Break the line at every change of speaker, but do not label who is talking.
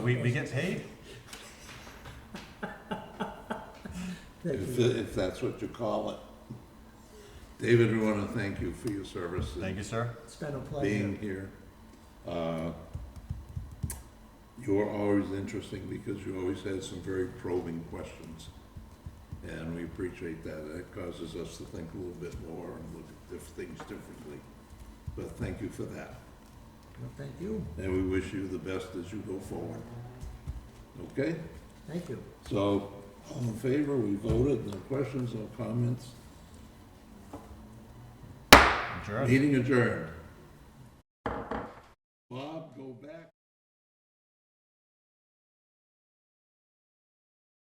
We, we get paid?
If, if that's what you call it. David, we want to thank you for your service
Thank
and
you, sir.
It's been a pleasure.
being here. Uh, You're always interesting because you always had some very probing questions. And we appreciate that. That causes us to think a little bit more and look at diff- things differently. But thank you for that.
Thank you,
And we wish you the best as you go forward. Okay?
thank you.
So, all in favor, we voted, no questions, no comments.
Adjourned.
Meeting adjourned.